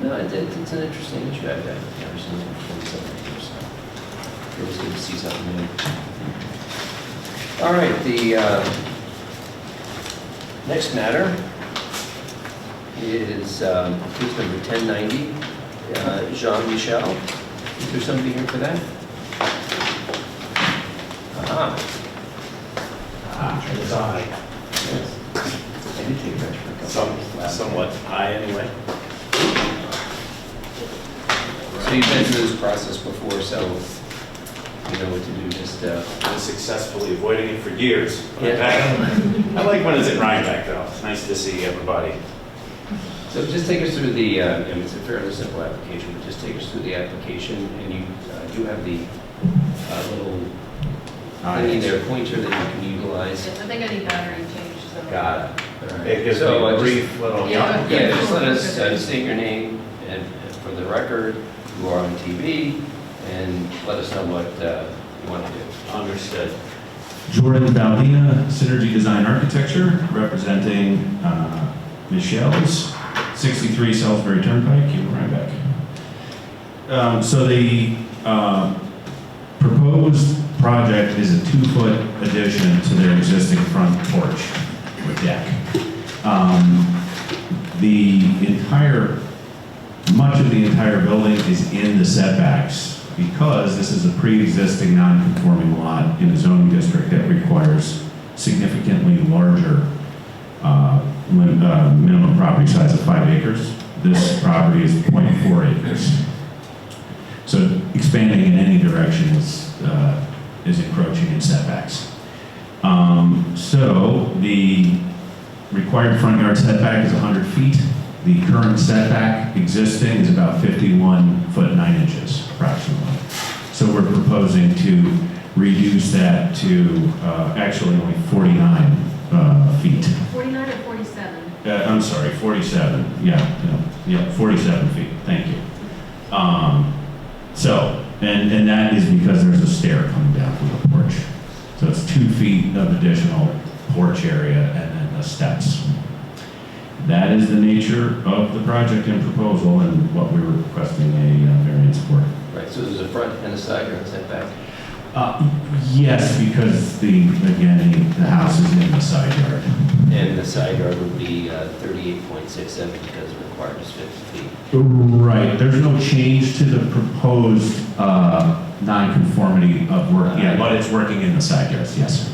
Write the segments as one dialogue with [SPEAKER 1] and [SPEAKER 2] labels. [SPEAKER 1] No, it- it- it's an interesting issue. I've I've never seen it before in so many years, so it was good to see something new. All right, the uh, next matter is um, case number 1090, uh, Jean Michel. Is there somebody here for that? Ah,
[SPEAKER 2] Ah, it's I.
[SPEAKER 1] yes. I did take a picture for a couple
[SPEAKER 2] Some,
[SPEAKER 1] of these.
[SPEAKER 2] somewhat high anyway.
[SPEAKER 1] So you've been through this process before, so you know what to do, just, uh,
[SPEAKER 2] Been successfully avoiding it for years. but I'm
[SPEAKER 1] Yeah.
[SPEAKER 2] back. I like when it's in Rhinebeck though. It's nice to see everybody.
[SPEAKER 1] so just take us through the, uh, I mean, it's a fairly simple application, but just take us through the application, and you uh, do have the uh, little thingy there, pointer that you can utilize.
[SPEAKER 3] Yes, I think I need battery changed, so.
[SPEAKER 2] Got it.
[SPEAKER 1] All right.
[SPEAKER 2] It gives me
[SPEAKER 1] So, uh,
[SPEAKER 2] a
[SPEAKER 1] just-
[SPEAKER 2] brief little.
[SPEAKER 3] Yeah.
[SPEAKER 1] Yeah, just let us uh, state your name and and for the record, you are on TV, and let us know what uh, you want to do.
[SPEAKER 2] Understood.
[SPEAKER 4] Jordan Baldina, Synergy Design Architecture, representing uh, Michelle's, 63 Salisbury Turnpike, in Rhinebeck. Um, So the uh, proposed project is a two-foot addition to their existing front porch or deck. Um, The entire, much of the entire building is in the setbacks because this is a pre-existing non-conforming lot in a zoning district that requires significantly larger uh, lim- uh, minimum property size of five acres. This property is .4 acres. So expanding in any direction is, uh, is encroaching in setbacks. Um, So the required front yard setback is 100 feet. The current setback existing is about 51 foot 9 inches approximately. So we're proposing to reduce that to uh, actually only 49 uh, feet.
[SPEAKER 3] Forty-nine or forty-seven?
[SPEAKER 4] Uh, I'm sorry, 47, yeah, yeah, yeah, 47 feet, thank you. Um, So, and, and that is because there's a stair coming down from the porch. So it's two feet of additional porch area and then the steps. That is the nature of the project and proposal and what we're requesting a uh, variance for.
[SPEAKER 1] Right, so there's a front and a side yard setback.
[SPEAKER 4] Uh, Yes, because the, again, the the house is in the side yard.
[SPEAKER 1] And the side yard would be uh, 38.67 because it requires 50 feet.
[SPEAKER 4] Right, there's no change to the proposed uh, non-conformity of work, yeah, but it's working in the side yards, yes.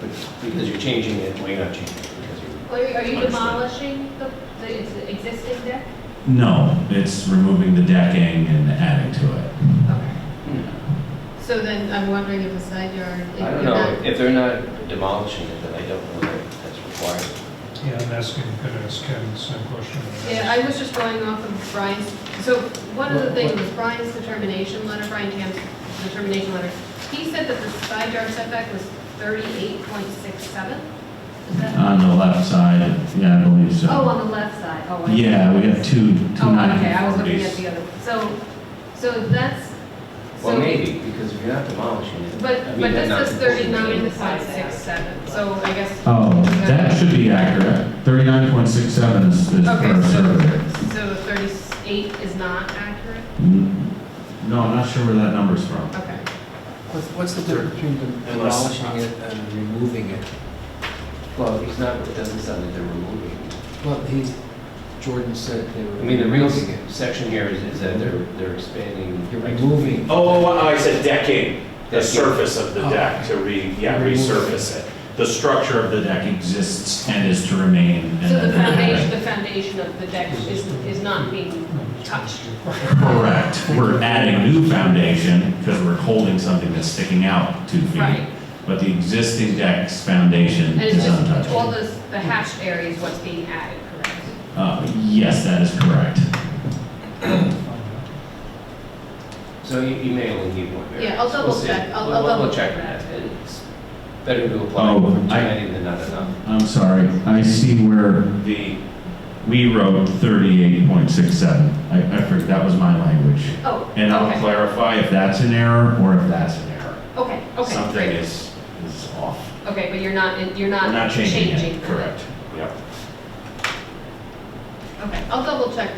[SPEAKER 1] But Because you're changing it, well, you're not changing it because you're,
[SPEAKER 3] Are you- are you
[SPEAKER 2] Understood.
[SPEAKER 3] demolishing the, the ex- existing deck?
[SPEAKER 4] No, it's removing the decking and adding to it.
[SPEAKER 3] Okay.
[SPEAKER 1] Hmm.
[SPEAKER 3] So then I'm wondering if the side yard. if
[SPEAKER 1] I don't
[SPEAKER 3] you're
[SPEAKER 1] know,
[SPEAKER 3] not-
[SPEAKER 1] if they're not demolishing it, then I don't know that that's required.
[SPEAKER 5] Yeah, I'm asking, gonna ask Ken the same question.
[SPEAKER 3] Yeah, I was just going off of Brian's, so one of the things was Brian's determination letter, Brian Tam's determination letter. He said that the side yard setback was thirty-eight point six seven? Is that?
[SPEAKER 4] On the left side, yeah, I believe so.
[SPEAKER 3] Oh, on the left side, oh. I-
[SPEAKER 4] Yeah, we have two, two
[SPEAKER 3] Oh, okay, I was looking at
[SPEAKER 4] non-conformities.
[SPEAKER 3] the other, one. so, so that's.
[SPEAKER 1] Well,
[SPEAKER 3] so-
[SPEAKER 1] maybe, because if you're not demolishing it. I
[SPEAKER 3] But,
[SPEAKER 1] mean,
[SPEAKER 3] but
[SPEAKER 1] that
[SPEAKER 3] this is
[SPEAKER 1] non-conformity-
[SPEAKER 3] thirty-nine, five, six, seven, so I guess.
[SPEAKER 4] Oh, that should be accurate, 39.67 is is per survey.
[SPEAKER 3] Okay, so, so thirty-eight is not accurate?
[SPEAKER 4] Mm, No, I'm not sure where that number's from.
[SPEAKER 3] Okay.
[SPEAKER 6] What's, what's the difference between
[SPEAKER 2] Unless-
[SPEAKER 6] demolishing it and removing it?
[SPEAKER 1] Well, he's not, it doesn't sound that they're removing it.
[SPEAKER 6] Well, he's, Jordan said they were.
[SPEAKER 1] I mean, the real
[SPEAKER 6] removing it.
[SPEAKER 1] section here is, is that they're, they're expanding.
[SPEAKER 6] You're removing.
[SPEAKER 2] Oh, oh, I said decking, the
[SPEAKER 1] Decking.
[SPEAKER 2] surface of the
[SPEAKER 4] Oh.
[SPEAKER 2] deck to re, yeah, resurface it.
[SPEAKER 4] The structure of the deck exists and is to remain. and
[SPEAKER 3] So the
[SPEAKER 4] then-
[SPEAKER 3] foundation, the foundation of the deck is, is not being touched.
[SPEAKER 4] Correct. We're adding new foundation because we're holding something that's sticking out two feet.
[SPEAKER 3] Right.
[SPEAKER 4] But the existing deck's foundation
[SPEAKER 3] And it's
[SPEAKER 4] is
[SPEAKER 3] just, all
[SPEAKER 4] untouched.
[SPEAKER 3] this, the hatched area is what's being added, correct?
[SPEAKER 4] Uh, Yes, that is correct.
[SPEAKER 1] So you, you may only need one variance.
[SPEAKER 3] Yeah, I'll double
[SPEAKER 1] We'll see.
[SPEAKER 3] check. I'll-
[SPEAKER 1] We'll-
[SPEAKER 3] I'll
[SPEAKER 1] we'll-
[SPEAKER 3] double
[SPEAKER 1] We'll check
[SPEAKER 3] check
[SPEAKER 1] that.
[SPEAKER 3] that.
[SPEAKER 1] It's better to apply
[SPEAKER 4] Oh,
[SPEAKER 1] for
[SPEAKER 4] I-
[SPEAKER 1] too many than not enough.
[SPEAKER 4] I'm sorry. I see where the, we wrote 38.67. I, I forget, that was my language.
[SPEAKER 3] Oh,
[SPEAKER 4] And I'll
[SPEAKER 3] okay,
[SPEAKER 4] clarify if that's an error or if that's an error.
[SPEAKER 3] okay, okay,
[SPEAKER 4] Something
[SPEAKER 3] great.
[SPEAKER 4] is, is off.
[SPEAKER 3] Okay, but you're not, you're
[SPEAKER 4] We're
[SPEAKER 3] not
[SPEAKER 4] not
[SPEAKER 3] changing.
[SPEAKER 4] changing it, correct.
[SPEAKER 2] Yep.
[SPEAKER 3] Okay, I'll double check